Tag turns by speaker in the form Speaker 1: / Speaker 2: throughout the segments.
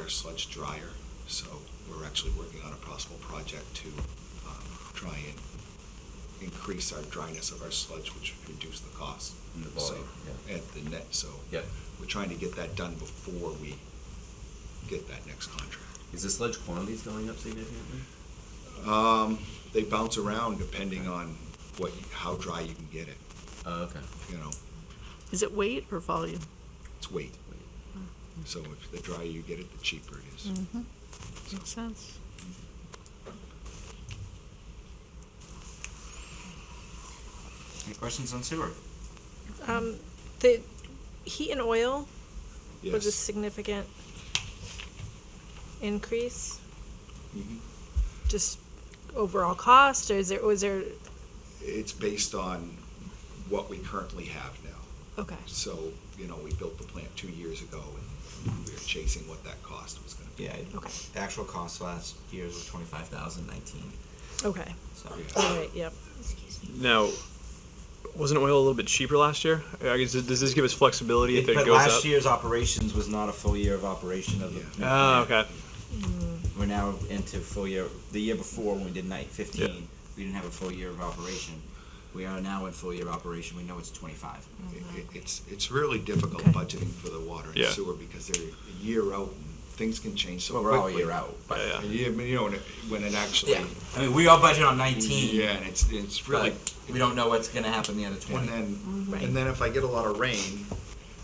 Speaker 1: our sludge dryer. So we're actually working on a possible project to um, try and increase our dryness of our sludge, which would reduce the cost.
Speaker 2: Mm,
Speaker 1: So-
Speaker 2: volume, yeah.
Speaker 1: At the net, so.
Speaker 2: Yeah.
Speaker 1: We're trying to get that done before we get that next contract.
Speaker 2: Is the sludge quantities going up significantly?
Speaker 1: Um, They bounce around depending on what, how dry you can get it,
Speaker 2: Oh, okay.
Speaker 1: you know,
Speaker 3: Is it weight or volume?
Speaker 1: it's weight. So if the drier you get it, the cheaper it is.
Speaker 3: Mm-hmm.
Speaker 1: So-
Speaker 3: Makes sense.
Speaker 4: Any questions on sewer?
Speaker 3: Um, the heat and oil was a
Speaker 1: Yes.
Speaker 3: significant increase,
Speaker 1: Mhm.
Speaker 3: just overall cost, or is there, was there,
Speaker 1: It's based on what we currently have now.
Speaker 3: okay,
Speaker 1: So, you know, we built the plant two years ago and we were chasing what that cost was gonna be.
Speaker 4: Yeah,
Speaker 3: Okay.
Speaker 4: the actual cost last year was twenty-five thousand nineteen,
Speaker 3: okay,
Speaker 4: so.
Speaker 1: Yeah.
Speaker 3: all right, yep.
Speaker 5: Now, wasn't oil a little bit cheaper last year? I guess, does this give us flexibility if it
Speaker 4: But
Speaker 5: goes
Speaker 4: last
Speaker 5: up?
Speaker 4: year's operations was not a full year of operation of the.
Speaker 1: Yeah.
Speaker 4: new
Speaker 5: oh,
Speaker 4: plant.
Speaker 5: okay.
Speaker 4: We're now into full year, the year before when we did night
Speaker 5: Yeah.
Speaker 4: fifteen, we didn't have a full year of operation. We are now in full year of operation, we know it's twenty-five.
Speaker 1: It- it- It's, it's really difficult
Speaker 3: Okay.
Speaker 1: budgeting for the water and
Speaker 5: Yeah.
Speaker 1: sewer because they're a year out and things can change so
Speaker 4: So
Speaker 1: quickly.
Speaker 4: we're all year out, but,
Speaker 5: Yeah,
Speaker 1: And You you know, when it- when it actually.
Speaker 4: yeah, I mean, we all budget on nineteen.
Speaker 1: Yeah, and it's, it's really.
Speaker 4: But we don't know what's gonna happen the other
Speaker 1: And
Speaker 4: twenty,
Speaker 1: then,
Speaker 3: Right.
Speaker 1: and then if I get a lot of rain,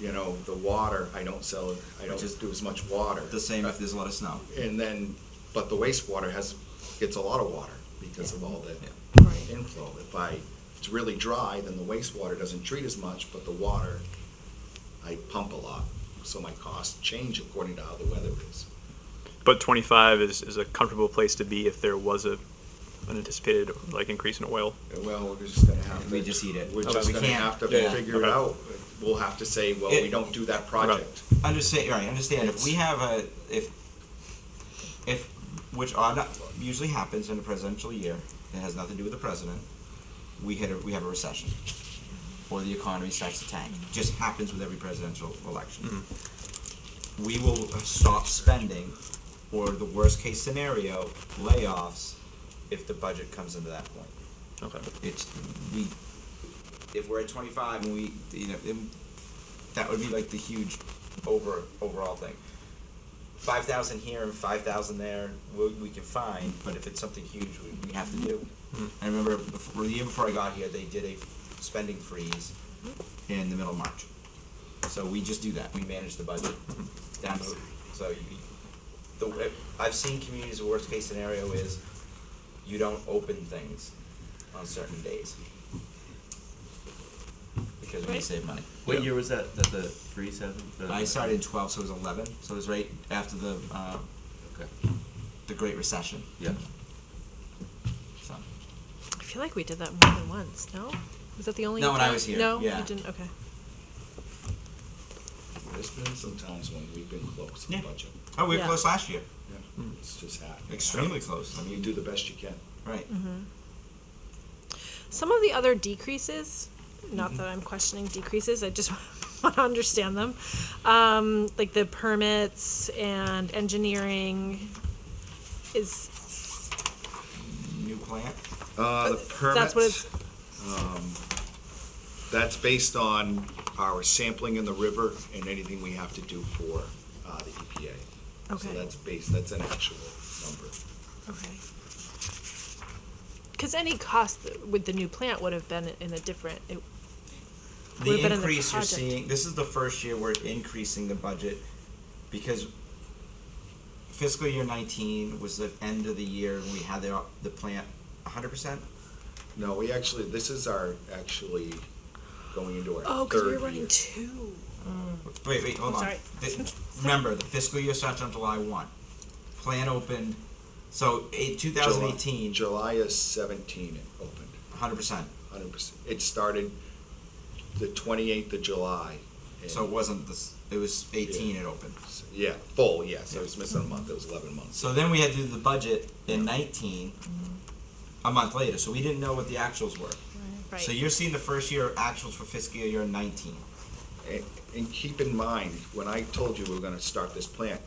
Speaker 1: you know, the water, I don't sell, I
Speaker 4: Which is-
Speaker 1: don't do as much water.
Speaker 4: the same if there's a lot of snow.
Speaker 1: And then, but the wastewater has, gets a lot of water because of all
Speaker 4: Yeah.
Speaker 1: the
Speaker 3: Right.
Speaker 1: inflow. If I, if it's really dry, then the wastewater doesn't treat as much, but the water, I pump a lot. So my costs change according to how the weather is.
Speaker 5: But 25 is, is a comfortable place to be if there was a an anticipated like increase in oil.
Speaker 1: And Well, we're just gonna have to.
Speaker 4: We just eat it.
Speaker 1: We're
Speaker 4: Okay.
Speaker 1: just
Speaker 4: We
Speaker 1: gonna
Speaker 4: can't-
Speaker 1: have to
Speaker 4: yeah.
Speaker 1: figure it
Speaker 5: Okay.
Speaker 1: out. We'll have to say, well,
Speaker 4: It-
Speaker 1: we don't do that project.
Speaker 4: Understand, right? Understand. If we have a if if which are not, usually happens in a presidential year, it has nothing to do with the president. We hit a, we have a recession, or the economy starts to tank. It just happens with every presidential election. We will stop spending, or the worst case scenario, layoffs, if the budget comes into that point
Speaker 5: Okay.
Speaker 4: it's we if we're at 25 and we you know it, that would be like the huge over overall thing 5000 here and 5000 there we, we can find but if it's something huge we, we have to do i remember before, the year before i got here they did a spending freeze in the middle of march so we just do that we manage the budget down to, so you, the, i've seen communities the worst case scenario is you don't open things on certain days because we can
Speaker 3: Right.
Speaker 4: save money.
Speaker 2: What year was that? That the freeze happened? The-
Speaker 4: I started in twelve, so it was eleven. So it was right after the uh,
Speaker 2: Okay.
Speaker 4: the Great Recession.
Speaker 2: Yeah.
Speaker 4: So
Speaker 3: I feel like we did that more than once, no? Was that the only?
Speaker 4: Not when I
Speaker 3: time?
Speaker 4: was here,
Speaker 3: No,
Speaker 4: yeah.
Speaker 3: you didn't, okay.
Speaker 1: There's been some times when we've been close to
Speaker 4: Yeah.
Speaker 1: budget.
Speaker 4: oh, we were
Speaker 3: Yeah.
Speaker 4: close last year.
Speaker 1: Yeah, It's just happened.
Speaker 4: Extremely close. I
Speaker 1: You
Speaker 4: mean,
Speaker 1: do the best you can.
Speaker 4: right.
Speaker 3: Some of the other decreases, not that I'm questioning decreases, I just want to understand them. Um, like the permits and engineering is, Mm-hmm.
Speaker 4: New plant.
Speaker 1: Uh, the
Speaker 3: that's what it's,
Speaker 1: permits, um, that's based on our sampling in the river and anything we have to do for, uh, the EPA. So
Speaker 3: Okay.
Speaker 1: that's based, that's an actual number.
Speaker 3: okay. Because any cost with the new plant would have been in a different, it, Would've
Speaker 4: The
Speaker 3: been in the
Speaker 4: increase you're
Speaker 3: project.
Speaker 4: seeing. This is the first year we're increasing the budget because fiscal year 19 was the end of the year and we had the op- the plant 100 percent.
Speaker 1: No, we actually, this is our, actually going into
Speaker 3: oh,
Speaker 1: our
Speaker 3: because we were
Speaker 1: third
Speaker 3: running
Speaker 1: year.
Speaker 3: two.
Speaker 4: Wait, wait,
Speaker 3: I'm
Speaker 4: hold on.
Speaker 3: sorry.
Speaker 4: The- remember, the fiscal year starts on July one. Plan opened, so in two
Speaker 1: July-
Speaker 4: thousand eighteen,
Speaker 1: July is seventeen it opened,
Speaker 4: hundred percent.
Speaker 1: hundred percent. It started the twenty-eighth of July. and-
Speaker 4: So it wasn't this. It was eighteen. It opened.
Speaker 1: Yeah, full, yes, I was missing a month, it was eleven months.
Speaker 4: So then we had to do the budget in nineteen, a month later. So we didn't know what the actuals were.
Speaker 3: Right.
Speaker 4: So you're seeing the first year actuals for fiscal year nineteen.
Speaker 1: And- And keep in mind, when I told you we were gonna start this plant,